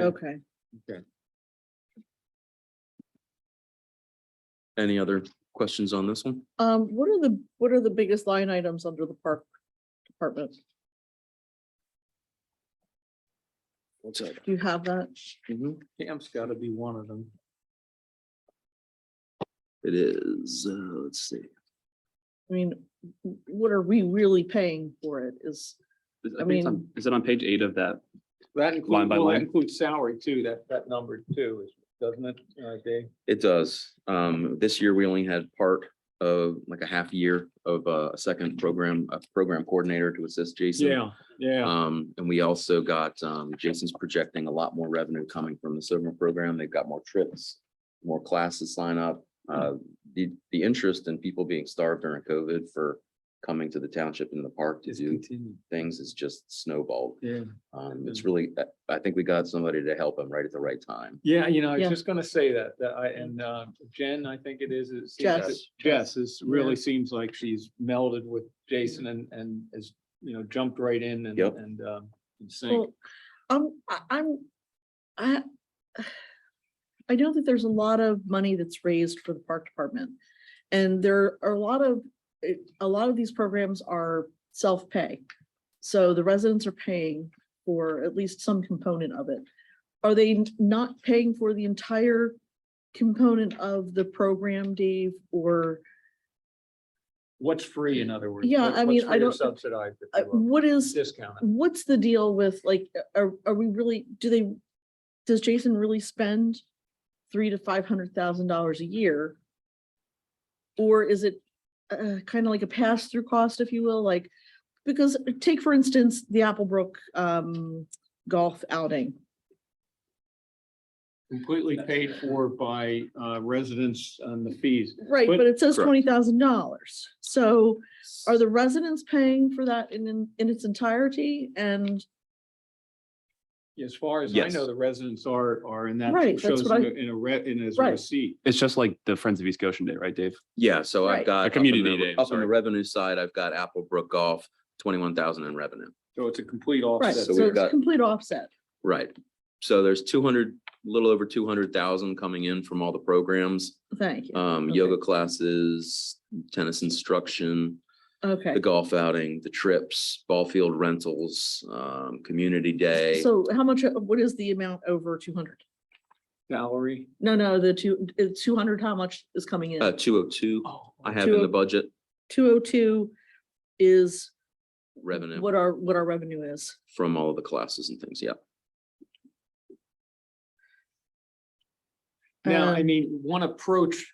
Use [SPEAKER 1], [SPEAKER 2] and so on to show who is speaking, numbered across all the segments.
[SPEAKER 1] Okay,
[SPEAKER 2] Any other questions on this one?
[SPEAKER 1] um, what are the, what are the biggest line items under the park department?
[SPEAKER 3] What's up?
[SPEAKER 1] Do you have that?
[SPEAKER 4] Camp's gotta be one of them.
[SPEAKER 2] It is, uh, let's see.
[SPEAKER 1] I mean, w- what are we really paying for it is,
[SPEAKER 5] Is-
[SPEAKER 1] I
[SPEAKER 5] I think it's on- is it on page eight of that?
[SPEAKER 4] That
[SPEAKER 5] Line
[SPEAKER 4] includes,
[SPEAKER 5] by
[SPEAKER 4] well, that
[SPEAKER 5] line?
[SPEAKER 4] includes salary too, that, that number too, is- doesn't it, uh, Dave?
[SPEAKER 2] It does. Um, this year we only had part of like a half year of uh, a second program, a program coordinator to assist Jason.
[SPEAKER 1] Uh,
[SPEAKER 4] yeah.
[SPEAKER 2] Um, and we also got, um, Jason's projecting a lot more revenue coming from the summer program. They've got more trips, more classes sign up. Uh, the, the interest in people being starved during COVID for coming to the township and the park to do things is just snowballed.
[SPEAKER 4] Yeah.
[SPEAKER 2] Um, it's really, I- I think we got somebody to help him right at the right time.
[SPEAKER 4] Yeah, you know, I was
[SPEAKER 1] Yeah.
[SPEAKER 4] just gonna say that, that I, and, uh, Jen, I think it is, it seems,
[SPEAKER 1] Jess.
[SPEAKER 4] that Jess is, really seems like she's melded with Jason and, and is, you know, jumped right in and,
[SPEAKER 2] Yep.
[SPEAKER 4] and, um, in sync.
[SPEAKER 1] well, um, I- I'm, I. I know that there's a lot of money that's raised for the park department. And there are a lot of, it- a lot of these programs are self-pay. So the residents are paying for at least some component of it. Are they n- not paying for the entire component of the program, Dave, or
[SPEAKER 4] What's free, in other words?
[SPEAKER 1] Yeah,
[SPEAKER 4] What-
[SPEAKER 1] I
[SPEAKER 4] what's
[SPEAKER 1] mean, I
[SPEAKER 4] free or
[SPEAKER 1] don't-
[SPEAKER 4] Subsidized. if
[SPEAKER 1] uh,
[SPEAKER 4] you will?
[SPEAKER 1] what is?
[SPEAKER 4] Discounted.
[SPEAKER 1] What's the deal with like, are, are we really, do they, does Jason really spend three to five hundred thousand dollars a year? Or is it uh, kind of like a pass through cost, if you will, like, because take for instance, the Applebrook um golf outing.
[SPEAKER 4] Completely paid for by, uh, residents on the fees.
[SPEAKER 1] Right,
[SPEAKER 4] But-
[SPEAKER 1] but it says
[SPEAKER 2] Correct.
[SPEAKER 1] twenty thousand dollars. So are the residents paying for that in- in in its entirety and?
[SPEAKER 4] As far as I
[SPEAKER 2] Yes.
[SPEAKER 4] know, the residents are, are in that.
[SPEAKER 1] Right, that's
[SPEAKER 4] shows
[SPEAKER 1] what I-
[SPEAKER 4] in a- In a re, in his
[SPEAKER 1] Right.
[SPEAKER 4] receipt.
[SPEAKER 5] It's just like the Friends of East Goshen Day, right, Dave?
[SPEAKER 2] Yeah, so
[SPEAKER 1] Right.
[SPEAKER 2] I've got.
[SPEAKER 5] A
[SPEAKER 2] up on
[SPEAKER 5] community
[SPEAKER 2] the-
[SPEAKER 5] day, I'm
[SPEAKER 2] Up on the
[SPEAKER 5] sorry.
[SPEAKER 2] revenue side, I've got Applebrook Golf, twenty-one thousand in revenue.
[SPEAKER 4] So it's a complete
[SPEAKER 1] Right,
[SPEAKER 4] offset.
[SPEAKER 2] so
[SPEAKER 1] so
[SPEAKER 2] we've
[SPEAKER 1] it's
[SPEAKER 2] got-
[SPEAKER 1] complete offset.
[SPEAKER 2] Right. So there's two hundred, little over two hundred thousand coming in from all the programs,
[SPEAKER 1] Thank you.
[SPEAKER 2] um,
[SPEAKER 1] Okay.
[SPEAKER 2] yoga classes, tennis instruction,
[SPEAKER 1] Okay.
[SPEAKER 2] the golf outing, the trips, ball field rentals, um, community day.
[SPEAKER 1] So how much, uh, what is the amount over two hundred?
[SPEAKER 4] Salary.
[SPEAKER 1] No, no, the two, uh, two hundred, how much is coming
[SPEAKER 2] Uh,
[SPEAKER 1] in?
[SPEAKER 2] two oh two,
[SPEAKER 4] Oh,
[SPEAKER 2] I have in the
[SPEAKER 1] 202.
[SPEAKER 2] budget
[SPEAKER 1] Two oh two is
[SPEAKER 2] revenue
[SPEAKER 1] what our, what our revenue is.
[SPEAKER 2] from all of the classes and things, yeah.
[SPEAKER 4] Now, I
[SPEAKER 1] Um,
[SPEAKER 4] mean, one approach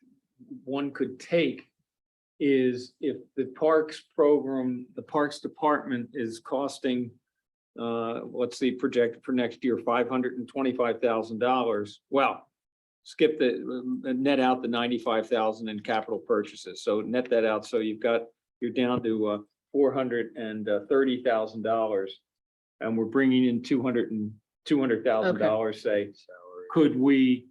[SPEAKER 4] one could take is if the parks program, the parks department is costing, uh, let's see, projected for next year, five hundred and twenty-five thousand dollars. Well, skip the, uh, net out the ninety-five thousand in capital purchases. So net that out. So you've got, you're down to, uh, four hundred and uh, thirty thousand dollars. And we're bringing in two hundred and, two hundred thousand dollars, say. Could we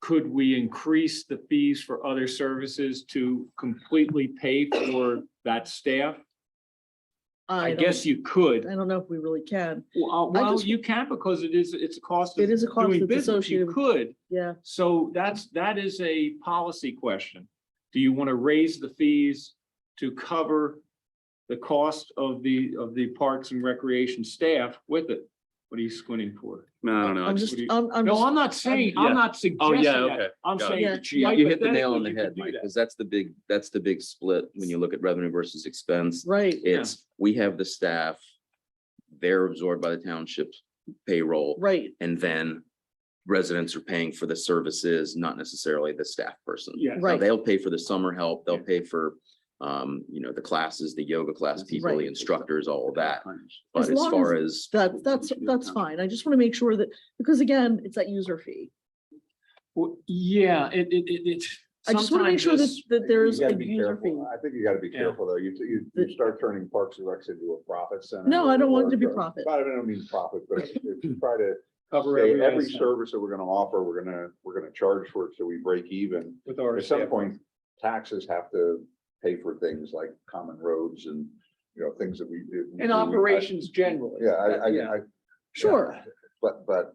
[SPEAKER 4] could we increase the fees for other services to completely pay for that staff? I
[SPEAKER 1] don't-
[SPEAKER 4] guess you could.
[SPEAKER 1] I don't know if we really can.
[SPEAKER 4] Well, uh, well,
[SPEAKER 1] just-
[SPEAKER 4] you can because it is, it's a cost. of
[SPEAKER 1] It is a cost
[SPEAKER 4] doing
[SPEAKER 1] that's
[SPEAKER 4] business.
[SPEAKER 1] associated.
[SPEAKER 4] You
[SPEAKER 1] with-
[SPEAKER 4] could.
[SPEAKER 1] Yeah,
[SPEAKER 4] So that's, that is a policy question. Do you want to raise the fees to cover the cost of the, of the parks and recreation staff with it? What are you squinting for?
[SPEAKER 5] Man, I don't know. I
[SPEAKER 1] I'm
[SPEAKER 5] just-
[SPEAKER 1] just,
[SPEAKER 4] what do you-
[SPEAKER 1] I'm, I'm,
[SPEAKER 4] No,
[SPEAKER 1] Oh, just-
[SPEAKER 4] I'm not saying,
[SPEAKER 5] Yeah.
[SPEAKER 4] I'm not suggesting
[SPEAKER 5] okay.
[SPEAKER 4] that. I'm
[SPEAKER 5] Got it.
[SPEAKER 4] saying.
[SPEAKER 1] Yeah.
[SPEAKER 2] Oh, You you hit the
[SPEAKER 4] hypothetically,
[SPEAKER 2] nail on the
[SPEAKER 4] you could
[SPEAKER 2] head,
[SPEAKER 4] do
[SPEAKER 2] Mike,
[SPEAKER 4] that.
[SPEAKER 2] because that's the big, that's the big split when you look at revenue versus expense.
[SPEAKER 1] right,
[SPEAKER 2] It's, we have the staff, they're absorbed by the township's payroll,
[SPEAKER 1] right,
[SPEAKER 2] and then residents are paying for the services, not necessarily the staff person.
[SPEAKER 4] Yeah.
[SPEAKER 2] Now,
[SPEAKER 1] Right.
[SPEAKER 2] They'll pay for the summer help, they'll
[SPEAKER 4] Yeah.
[SPEAKER 2] pay for, um, you know, the classes, the yoga class people, the
[SPEAKER 1] Right.
[SPEAKER 2] instructors, all of that.
[SPEAKER 1] As
[SPEAKER 2] But as
[SPEAKER 1] long
[SPEAKER 2] far as,
[SPEAKER 1] that, that's, that's fine. I just want to make sure that, because again, it's that user fee.
[SPEAKER 4] Well, yeah, it, it, it, it.
[SPEAKER 1] I just want to make
[SPEAKER 4] sometimes
[SPEAKER 1] sure that,
[SPEAKER 4] it's-
[SPEAKER 1] that
[SPEAKER 6] You
[SPEAKER 1] there is
[SPEAKER 6] gotta
[SPEAKER 1] a
[SPEAKER 6] be
[SPEAKER 1] user fee.
[SPEAKER 6] careful. I think you gotta be
[SPEAKER 4] Yeah.
[SPEAKER 6] careful, though. You, you,
[SPEAKER 1] The-
[SPEAKER 6] you start turning Parks and Recs into a profit center.
[SPEAKER 1] No, I don't want it to be
[SPEAKER 6] or-
[SPEAKER 1] profit.
[SPEAKER 6] I don't mean profit, but if you try to
[SPEAKER 4] Cover
[SPEAKER 6] say every
[SPEAKER 4] every
[SPEAKER 6] service that we're gonna offer, we're gonna, we're gonna charge for it, so we break even.
[SPEAKER 4] with our
[SPEAKER 6] At some
[SPEAKER 4] staff.
[SPEAKER 6] point, taxes have to pay for things like common roads and, you know, things that we do.
[SPEAKER 4] And operations generally.
[SPEAKER 6] Yeah, uh, I, I,
[SPEAKER 4] Yeah.
[SPEAKER 6] I,
[SPEAKER 1] Sure,
[SPEAKER 6] but, but